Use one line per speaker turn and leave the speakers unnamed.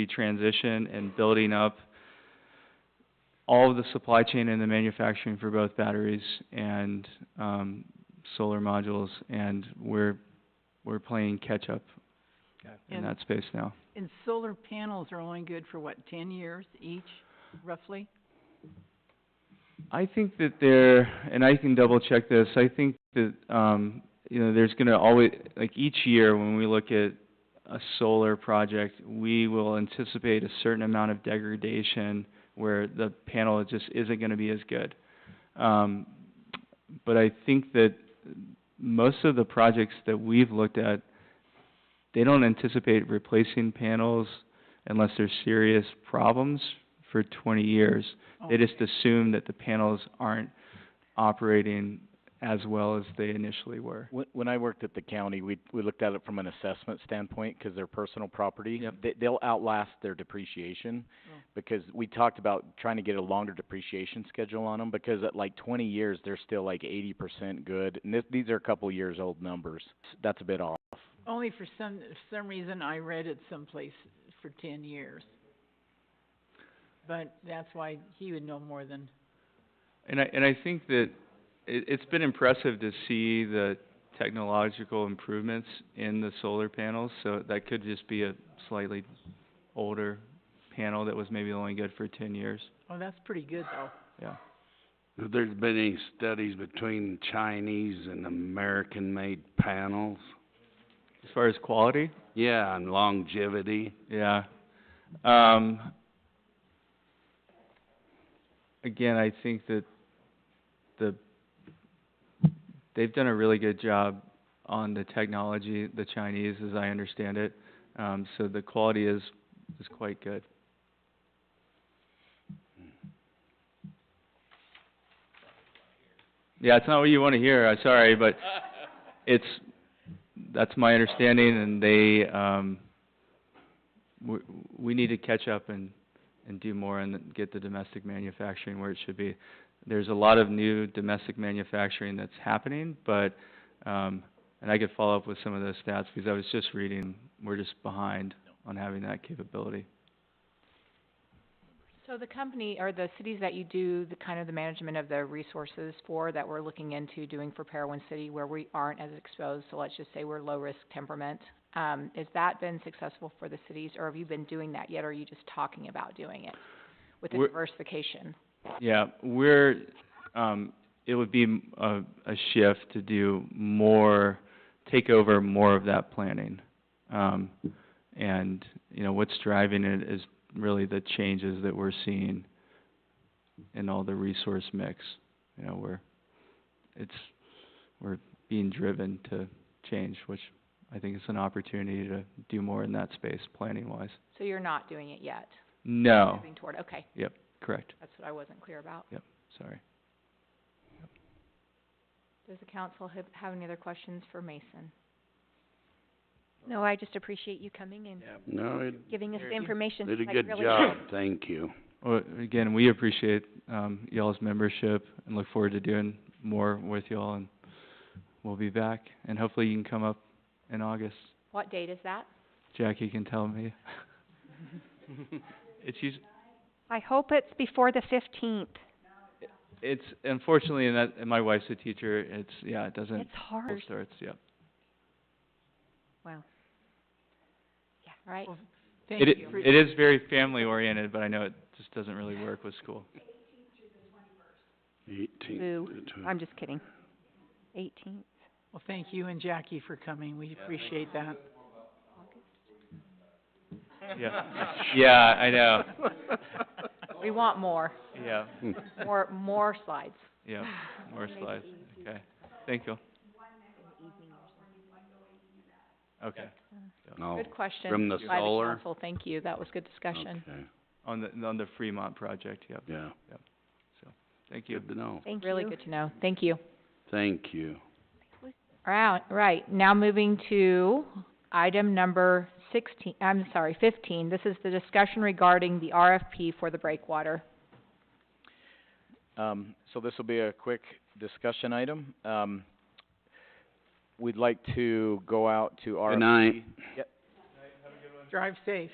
the transition and building up all of the supply chain and the manufacturing for both batteries and, um, solar modules, and we're, we're playing catch-up in
And-
that space now.
And solar panels are only good for what, ten years each, roughly?
I think that there, and I can double check this, I think that, um, you know, there's gonna always, like each year when we look at a solar project, we will anticipate a certain amount of degradation where the panel just isn't gonna be as good. Um, but I think that most of the projects that we've looked at, they don't anticipate replacing panels unless there's serious problems for twenty years. They just assume that the panels aren't operating as well as they initially were.
When, when I worked at the county, we, we looked at it from an assessment standpoint, cause they're personal property.
Yep.
They, they'll outlast their depreciation,
Oh.
because we talked about trying to get a longer depreciation schedule on them, because at like twenty years, they're still like eighty percent good, and this, these are a couple years old numbers. That's a bit off.
Only for some, for some reason I read it someplace for ten years. But that's why he would know more than,
And I, and I think that it, it's been impressive to see the technological improvements in the solar panels, so that could just be a slightly older panel that was maybe only good for ten years,
oh, that's pretty good though.
yeah.
Have there been any studies between Chinese and American-made panels?
As far as quality,
Yeah, and longevity.
Yeah. Um, again, I think that the, they've done a really good job on the technology, the Chinese, as I understand it. Um, so the quality is, is quite good. Yeah, it's not what you wanna hear, I'm sorry, but it's, that's my understanding and they, um, we, we need to catch up and, and do more and get the domestic manufacturing where it should be. There's a lot of new domestic manufacturing that's happening, but, um, and I could follow up with some of those stats because I was just reading, we're just behind on having that capability.
So the company, or the cities that you do the kind of the management of the resources for, that we're looking into doing for Parowan City, where we aren't as exposed, so let's just say we're low-risk temperament, um, has that been successful for the cities, or have you been doing that yet, or are you just talking about doing it with the
We're-
diversification?
Yeah, we're, um, it would be m- a, a shift to do more, take over more of that planning. Um, and, you know, what's driving it is really the changes that we're seeing in all the resource mix. You know, we're, it's, we're being driven to change, which I think is an opportunity to do more in that space, planning wise.
So you're not doing it yet?
No,
Moving toward, okay,
correct,
that's what I wasn't clear about.
sorry.
Does the council have, have any other questions for Mason?
No, I just appreciate you coming and
No, it
giving us
Very
the
good.
information.
did a
I
good
really-
job, thank you.
Well, again, we appreciate, um, y'all's membership and look forward to doing more with y'all and we'll be back. And hopefully you can come up in August.
What date is that?
Jackie can tell me. It's us-
I hope it's before the fifteenth.
it's unfortunately, and that, and my wife's a teacher, it's, yeah, it doesn't,
It's hard.
it starts, yeah.
Wow.
Yeah. Right?
Well,
It
Thank
i-
you.
it is very family oriented, but I know it just doesn't really work with school.
Eighteen
Boo. I'm just kidding. Eighteenth.
Well, thank you and Jackie for coming. We appreciate that.
Yeah, yeah, I know,
We want more,
yeah,
Hmm.
more, more slides.
yeah, more slides, okay. Thank you. Okay.
No,
Good question.
from the
by the
solar?
council, thank you, that was good discussion.
okay,
On the, on the Fremont project, yep,
yeah,
thank you.
good to know,
Thank you.
Really good to know, thank you.
thank you.
All right, right, now moving to item number sixteen, I'm sorry, fifteen. This is the discussion regarding the RFP for the breakwater.
Um, so this will be a quick discussion item. Um, we'd like to go out to RFP.
Good night.
Drive safe.